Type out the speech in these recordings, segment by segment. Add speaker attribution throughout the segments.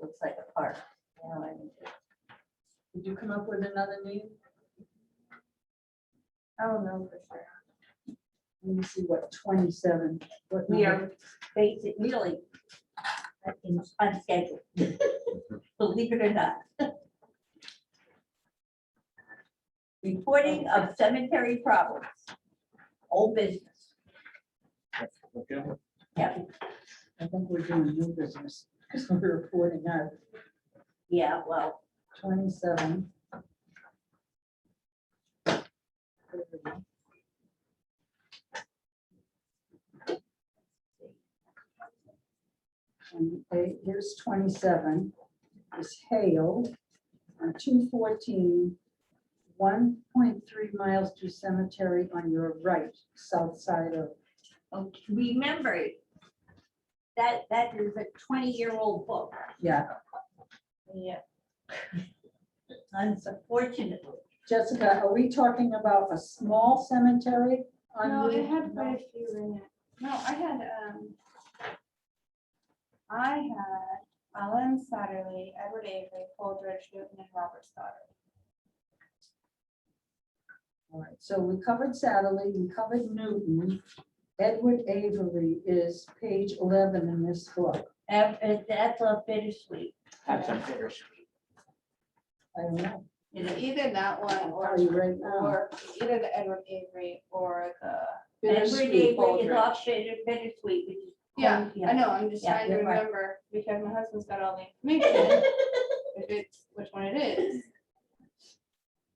Speaker 1: looks like a park. you know, and it-
Speaker 2: Did you come up with another name?
Speaker 1: I don't know for sure.
Speaker 2: Let me see what twenty-seven. what
Speaker 1: We
Speaker 2: number?
Speaker 1: are basic, really uh, in- unscheduled. Believe it or not. Reporting of cemetery problems. Old business.
Speaker 3: Okay.
Speaker 1: Yeah,
Speaker 2: I think we're doing new business, because we're reporting out
Speaker 1: yeah, well,
Speaker 2: twenty-seven. And they- here's twenty-seven, is Hale, on two fourteen, one point three miles to cemetery on your right, south side of,
Speaker 1: okay, remember that, that is a twenty-year-old book.
Speaker 2: yeah,
Speaker 1: Yeah. Unfortunately,
Speaker 2: Jessica, are we talking about a small cemetery? on
Speaker 4: No,
Speaker 2: you?
Speaker 4: it had
Speaker 2: No.
Speaker 4: quite a few in it. No, I had, um, I had Alan Satterley, Edward Avery, Holdridge, Newton, and Robert Stoddard.
Speaker 2: All right, so we covered Satterley, we covered Newton. Edward Avery is page eleven in this book.
Speaker 1: after, that's a bittersweet.
Speaker 3: That's a finish.
Speaker 2: I don't know,
Speaker 1: you know,
Speaker 4: Either that one
Speaker 2: I'll
Speaker 4: or,
Speaker 2: tell you right now.
Speaker 4: or either the Edward Avery or the,
Speaker 1: Edward
Speaker 2: Bittersweet.
Speaker 1: Avery is
Speaker 4: Baldridge.
Speaker 1: off bitter, bittersweet, which is.
Speaker 4: yeah,
Speaker 1: Yeah.
Speaker 4: I know, I'm just
Speaker 1: Yeah,
Speaker 4: trying to
Speaker 2: you're right.
Speaker 4: remember because my husband's got all the information. If it's, which one it is.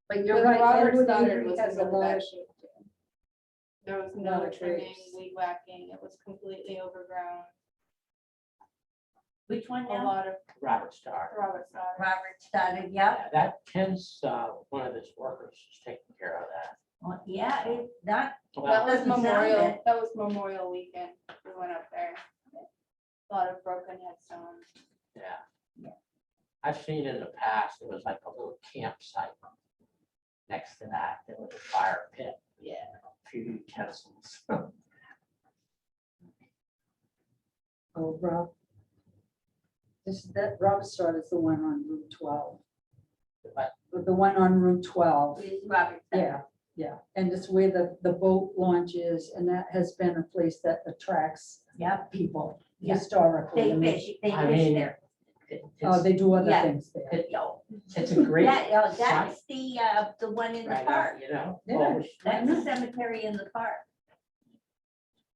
Speaker 2: But
Speaker 4: But
Speaker 2: you're right.
Speaker 4: Robert
Speaker 2: Edward
Speaker 4: Stoddard
Speaker 2: Avery
Speaker 4: was
Speaker 2: has a
Speaker 4: in that
Speaker 2: large,
Speaker 4: shape too. There was
Speaker 2: Lot
Speaker 4: no
Speaker 2: of
Speaker 4: trimming,
Speaker 2: trees.
Speaker 4: weed whacking, it was completely overgrown,
Speaker 1: Which one
Speaker 4: a
Speaker 1: now?
Speaker 4: lot of
Speaker 3: Robert Starr.
Speaker 4: Robert Stoddard.
Speaker 1: Robert started, yeah,
Speaker 3: Yeah, That Ken's, uh, one of his workers is taking care of that.
Speaker 1: Well, yeah, it's not,
Speaker 4: That
Speaker 3: Well,
Speaker 1: Well-
Speaker 4: was
Speaker 1: Doesn't sound
Speaker 4: Memorial,
Speaker 1: it.
Speaker 4: that was Memorial Weekend, we went up there. A Lot of broken headstones.
Speaker 3: yeah.
Speaker 1: Yeah.
Speaker 3: I've seen in the past, it was like a little campsite. Next to that, there was a fire pit,
Speaker 4: Yeah.
Speaker 3: a few utensils.
Speaker 2: oh, Rob. This, that, Robert Stoddard is the one on Route twelve,
Speaker 3: But
Speaker 2: the one on Route twelve.
Speaker 1: it's Robert Stoddard.
Speaker 2: Yeah, yeah, and it's where the, the boat launch is, and that has been a place that attracts
Speaker 1: Yep,
Speaker 2: people
Speaker 1: Yeah.
Speaker 2: historically.
Speaker 1: they
Speaker 2: I mean,
Speaker 1: fish, they
Speaker 3: Mm-hmm. I
Speaker 1: fish
Speaker 3: mean,
Speaker 1: there.
Speaker 3: it-
Speaker 2: Oh,
Speaker 3: It's,
Speaker 2: they do other
Speaker 1: Yeah.
Speaker 2: things there.
Speaker 3: it-
Speaker 1: Yo,
Speaker 3: it's a great.
Speaker 1: That, oh,
Speaker 3: site
Speaker 1: that's the, uh, the one in the
Speaker 3: right out,
Speaker 1: park,
Speaker 3: You know?
Speaker 2: Yeah.
Speaker 3: Well,
Speaker 1: that's the cemetery in the park.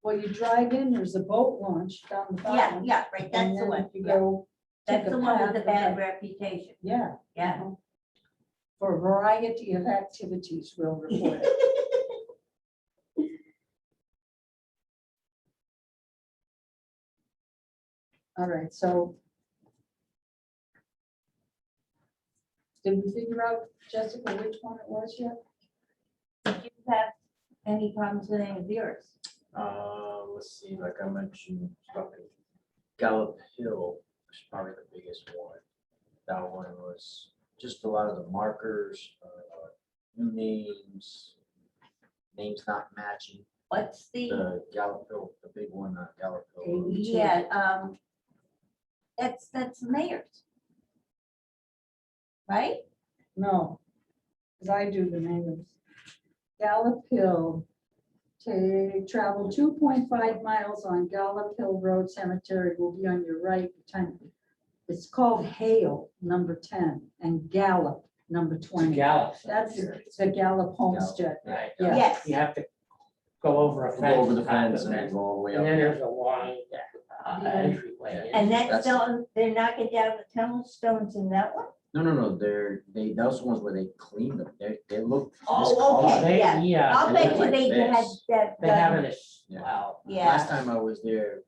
Speaker 2: Well, you drive in, there's a boat launch down the
Speaker 1: Yeah,
Speaker 2: bottom.
Speaker 1: yeah, right,
Speaker 2: and
Speaker 1: that's the
Speaker 2: then
Speaker 1: one,
Speaker 2: You
Speaker 1: yeah.
Speaker 2: go. take
Speaker 1: that's
Speaker 2: a
Speaker 1: the one with
Speaker 2: path
Speaker 1: the
Speaker 2: of
Speaker 1: bad
Speaker 2: that-
Speaker 1: reputation,
Speaker 2: Yeah.
Speaker 1: yeah.
Speaker 2: For a variety of activities, we'll report it. All right, so. Did we figure out, Jessica, which one it was yet?
Speaker 1: Did you have any problems with any of yours?
Speaker 5: Uh, let's see, like I mentioned, probably Gallup Hill was probably the biggest one. That one was just a lot of the markers, uh, new names, names not matching.
Speaker 1: What's the,
Speaker 5: The Gallup Hill, the big one, uh, Gallup Hill. Road.
Speaker 1: yeah, um, that's, that's mayors. Right?
Speaker 2: No, because I do the names. Gallop Hill, to travel two point five miles on Gallop Hill Road Cemetery will be on your right. Time. It's called Hale, number ten, and Gallop, number
Speaker 3: It's a
Speaker 2: twenty.
Speaker 3: gallop.
Speaker 2: That's the Gallop Homestead.
Speaker 3: Right.
Speaker 2: Yeah.
Speaker 1: Yes.
Speaker 3: You have to go over a
Speaker 5: Go
Speaker 3: fence.
Speaker 5: over the
Speaker 3: climb
Speaker 5: fence and then go all the way
Speaker 3: And then
Speaker 5: up.
Speaker 3: there's a wide uh,
Speaker 2: Yeah.
Speaker 3: entryway.
Speaker 1: And that's,
Speaker 5: That's-
Speaker 1: still- they're knocking down the tunnel stones in that one?
Speaker 5: No, no, no, they're, they, those ones where they cleaned them, they, they look.
Speaker 1: Oh,
Speaker 3: Oh,
Speaker 1: okay,
Speaker 5: discolored.
Speaker 3: they-
Speaker 1: yeah.
Speaker 3: Yeah,
Speaker 1: I'll
Speaker 5: they
Speaker 1: bet
Speaker 5: look
Speaker 1: you
Speaker 5: like
Speaker 1: they had
Speaker 5: this.
Speaker 1: that.
Speaker 3: they
Speaker 1: done.
Speaker 3: haven't, as-
Speaker 5: Yeah.
Speaker 3: well,
Speaker 1: Yeah,
Speaker 5: Last time I was there,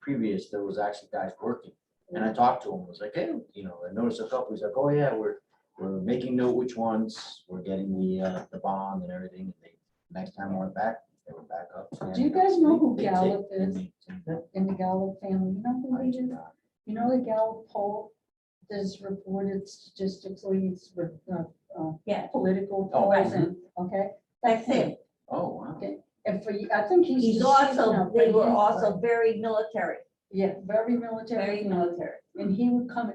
Speaker 5: previous, there was actually guys working, and
Speaker 2: Mm.
Speaker 5: I talked to him, was like, hey, you know, I noticed a couple, he's like, oh yeah, we're, we're making note which ones, we're getting the, uh, the bond and everything, and they, next time I went back, they were back up. uh,
Speaker 2: Do you guys know who Gallup is?
Speaker 5: is?
Speaker 2: in the Gallup family. You know who they do? You know the Gallup poll, there's reported statistically, it's, re- uh, uh,
Speaker 1: Yeah.
Speaker 2: political
Speaker 5: Oh, right.
Speaker 2: polls and, okay?
Speaker 1: that's it.
Speaker 5: Oh, wow.
Speaker 2: And for, I think he's.
Speaker 1: He's
Speaker 2: deceased
Speaker 1: also,
Speaker 2: now,
Speaker 1: they
Speaker 2: but
Speaker 1: were
Speaker 2: he's-
Speaker 1: also very military.
Speaker 2: Yeah, very military.
Speaker 4: Very military.
Speaker 2: And he would come